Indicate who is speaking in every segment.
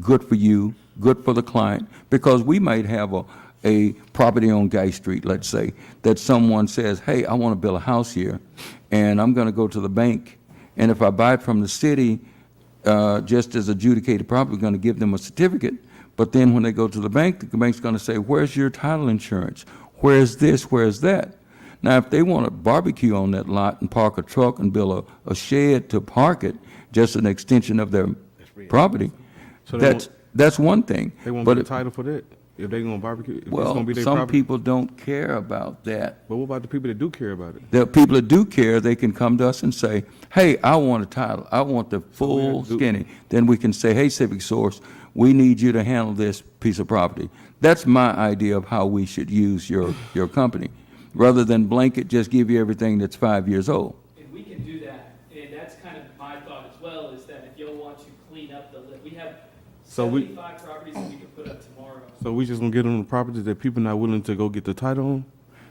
Speaker 1: good for you, good for the client, because we might have a, a property on Guy Street, let's say, that someone says, hey, I want to build a house here, and I'm going to go to the bank, and if I buy it from the city, uh, just as adjudicated property, we're going to give them a certificate, but then when they go to the bank, the bank's going to say, where's your title insurance? Where's this, where's that? Now, if they want to barbecue on that lot and park a truck and build a, a shed to park it, just an extension of their property,
Speaker 2: So they
Speaker 1: that's,
Speaker 2: won't-
Speaker 1: that's one thing.
Speaker 2: They won't
Speaker 1: But
Speaker 2: get a
Speaker 1: it-
Speaker 2: title for that. If they gonna barbecue, if it's gonna
Speaker 1: Well,
Speaker 2: be their
Speaker 1: some
Speaker 2: property.
Speaker 1: people don't care about that.
Speaker 2: But what about the people that do care about it?
Speaker 1: The people that do care, they can come to us and say, hey, I want a title, I want the
Speaker 2: we have
Speaker 1: full
Speaker 2: to do-
Speaker 1: skinny. Then we can say, hey, Civic Source, we need you to handle this piece of property. That's my idea of how we should use your, your company, rather than blanket just give you everything that's five years old.
Speaker 3: And we can do that, and that's kind of my thought as well, is that if y'all want to clean up the, li- we have
Speaker 2: So we-
Speaker 3: seventy-five properties that we can put up tomorrow.
Speaker 2: So we just gonna get them the properties that people not willing to go get the title on?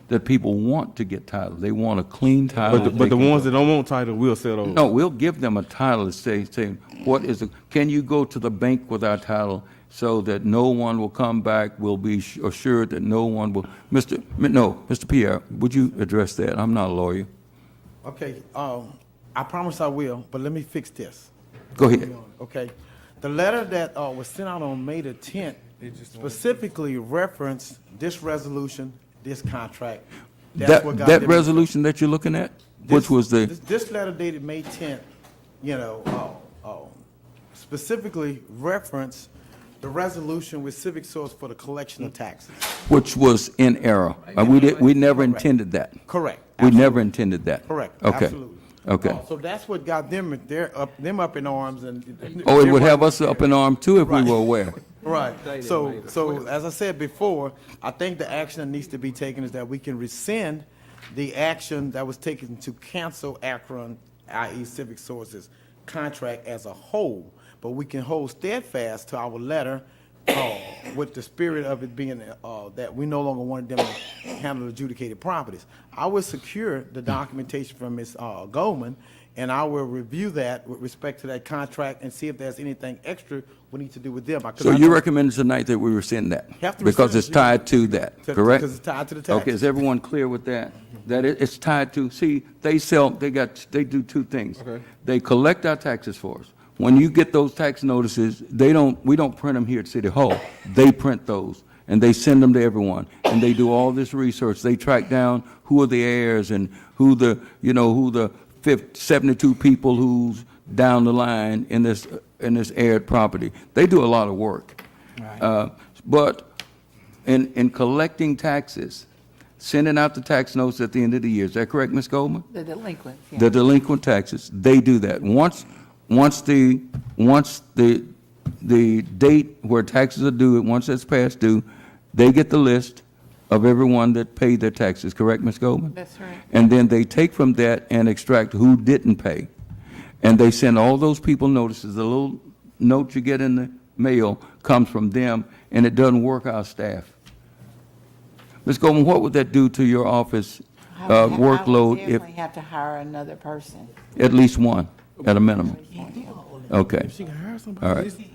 Speaker 1: That people want to get title, they want a clean title.
Speaker 2: But, the-
Speaker 1: that
Speaker 2: but
Speaker 1: they
Speaker 2: the
Speaker 1: can-
Speaker 2: ones that don't want title, we'll sell those.
Speaker 1: No, we'll give them a title to say, say, what is, the- can you go to the bank with our title so that no one will come back, we'll be s- assured that no one will, Mr., M- no, Mr. Pierre, would you address that? I'm not a lawyer.
Speaker 4: Okay, um, I promise I will, but let me fix this.
Speaker 1: Go ahead.
Speaker 4: Okay, the letter that, uh, was sent out on May the tenth specifically referenced this resolution, this contract. That's
Speaker 1: That,
Speaker 4: what got
Speaker 1: that
Speaker 4: them-
Speaker 1: resolution that you're looking at,
Speaker 4: this-
Speaker 1: which was the,
Speaker 4: This, this letter dated May tenth, you know, uh, uh, specifically referenced the resolution with Civic Source for the collection of taxes.
Speaker 1: which was in error. Uh, We did, we never intended that.
Speaker 4: Correct.
Speaker 1: We never intended that.
Speaker 4: Correct,
Speaker 1: Okay.
Speaker 4: absolutely. Uh,
Speaker 1: Okay.
Speaker 4: So that's what got them, they're up, them up in arms and.
Speaker 1: Oh, it
Speaker 4: they
Speaker 1: would have
Speaker 4: wasn't
Speaker 1: us up in arm too if we
Speaker 4: Right.
Speaker 1: were aware.
Speaker 4: Right, so, so as I said before, I think the action that needs to be taken is that we can rescind the action that was taken to cancel Akron, i.e. Civic Sources, contract as a whole, but we can hold steadfast to our letter, uh, with the spirit of it being, uh, that we no longer wanted them to handle adjudicated properties. I will secure the documentation from Ms. uh, Goldman, and I will review that with respect to that contract and see if there's anything extra we need to do with them. I- 'cause
Speaker 1: So
Speaker 4: I
Speaker 1: you
Speaker 4: know-
Speaker 1: recommended tonight that we rescind that?
Speaker 4: Have to
Speaker 1: Because
Speaker 4: rescind
Speaker 1: it's
Speaker 4: it.
Speaker 1: tied to that,
Speaker 4: To-
Speaker 1: correct?
Speaker 4: because it's tied to the taxes.
Speaker 1: Okay, is everyone clear with that? That it, it's tied to, see, they sell, they got, they do two things.
Speaker 2: Okay.
Speaker 1: They collect our taxes for us. When you get those tax notices, they don't, we don't print them here at City Hall. They print those, and they send them to everyone. And they do all this research. They track down who are the heirs and who the, you know, who the fif- 72 people who's down the line in this, in this aired property. They do a lot of work. Uh, But in, in collecting taxes, sending out the tax notes at the end of the year, is that correct, Ms. Goldman?
Speaker 5: The delinquents, yeah.
Speaker 1: the delinquent taxes, they do that. Once, once the, once the, the date where taxes are due, once that's past due, they get the list of everyone that paid their taxes, correct, Ms. Goldman?
Speaker 5: That's right.
Speaker 1: And then they take from that and extract who didn't pay. And they send all those people notices, the little note you get in the mail comes from them, and it doesn't work our staff. Ms. Goldman, what would that do to your office
Speaker 5: I would
Speaker 1: uh,
Speaker 5: ha-
Speaker 1: workload
Speaker 5: I
Speaker 1: if?
Speaker 5: would definitely have to hire another person.
Speaker 1: At least one, at a minimum. Okay.
Speaker 2: If she can hire
Speaker 1: All
Speaker 2: somebody,
Speaker 1: right.
Speaker 2: it's-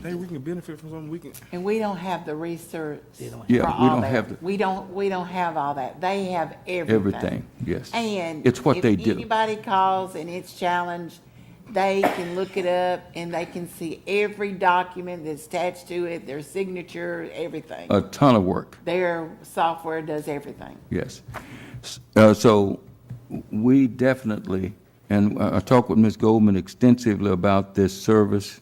Speaker 2: they, we can benefit from something, we can.
Speaker 5: And we don't have the research for all that.
Speaker 1: Yeah, we don't have the-
Speaker 5: We don't, we don't have all that. They have everything.
Speaker 1: Everything, yes.
Speaker 5: And.
Speaker 1: It's what they do.
Speaker 5: If anybody calls and it's challenged, they can look it up and they can see every document that's attached to it, their signature, everything.
Speaker 1: A ton of work,
Speaker 5: Their software does everything.
Speaker 1: yes. S- uh, So we definitely, and I I talked with Ms. Goldman extensively about this service,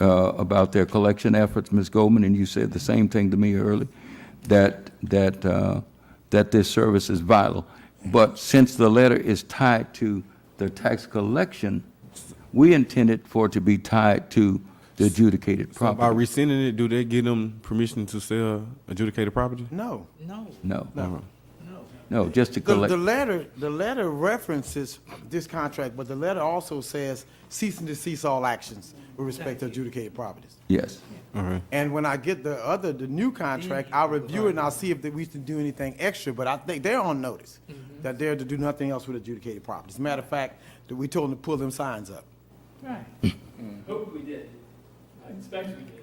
Speaker 1: uh, about their collection efforts, Ms. Goldman, and you said the same thing to me early, that, that, uh, that this service is vital. But since the letter is tied to the tax collection, we intended for it to be tied to the adjudicated
Speaker 2: So By
Speaker 1: property.
Speaker 2: rescinding it, do they give them permission to sell adjudicated property?
Speaker 4: No.
Speaker 1: No. No, just to
Speaker 4: The,
Speaker 1: collect.
Speaker 4: the letter, the letter references this contract, but the letter also says cease and desist all actions with respect to adjudicated properties.
Speaker 1: Yes.
Speaker 4: And when I get the other, the new contract, I'll review it and I'll see if that we can do anything extra, but I think they're on notice that they're to do nothing else with adjudicated properties. Matter of fact, that we told them to pull them signs up.
Speaker 2: Mhm.
Speaker 3: Hope we did. I expect we did.